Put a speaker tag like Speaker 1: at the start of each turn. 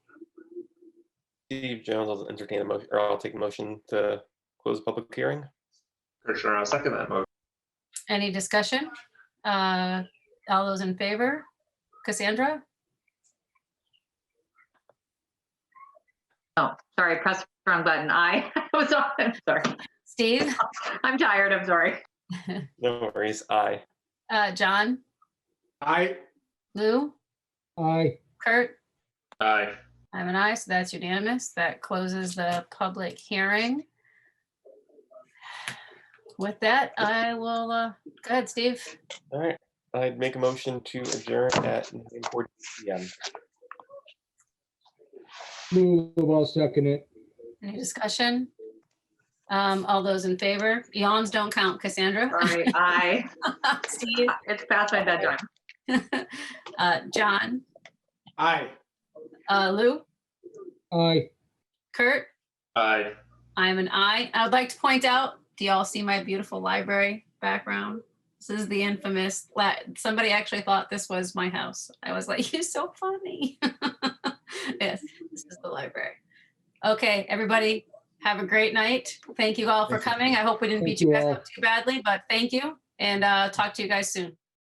Speaker 1: Steve Jones, I'll entertain a motion, or I'll take a motion to close the public hearing.
Speaker 2: Kirschner, I'll second that motion.
Speaker 3: Any discussion? Uh, All those in favor? Cassandra?
Speaker 4: Oh, sorry, pressed the wrong button. I was on, I'm sorry.
Speaker 3: Steve?
Speaker 4: I'm tired, I'm sorry.
Speaker 1: No worries, aye.
Speaker 3: Uh, John?
Speaker 5: Aye.
Speaker 3: Lou?
Speaker 5: Aye.
Speaker 3: Kurt?
Speaker 2: Aye.
Speaker 3: I'm an aye, so that's unanimous. That closes the public hearing. With that, I will, uh, go ahead, Steve.
Speaker 1: All right, I'd make a motion to adjourn at nine forty PM.
Speaker 5: Move, I'll second it.
Speaker 3: Any discussion? Um, All those in favor? Yawns don't count, Cassandra.
Speaker 4: Sorry, I,
Speaker 3: Steve?
Speaker 4: it's past my bedtime.
Speaker 3: Uh, John?
Speaker 5: Aye.
Speaker 3: Uh, Lou?
Speaker 5: Aye.
Speaker 3: Kurt?
Speaker 2: Aye.
Speaker 3: I'm an I. I would like to point out, do y'all see my beautiful library background? This is the infamous, la- somebody actually thought this was my house. I was like, you're so funny. Yes, this is the library. Okay, everybody, have a great night. Thank you all for
Speaker 5: Thank you.
Speaker 3: coming. I hope we didn't beat
Speaker 5: Thank
Speaker 3: you
Speaker 5: you
Speaker 3: guys
Speaker 5: all.
Speaker 3: up too badly, but thank you. And uh, talk to you guys soon.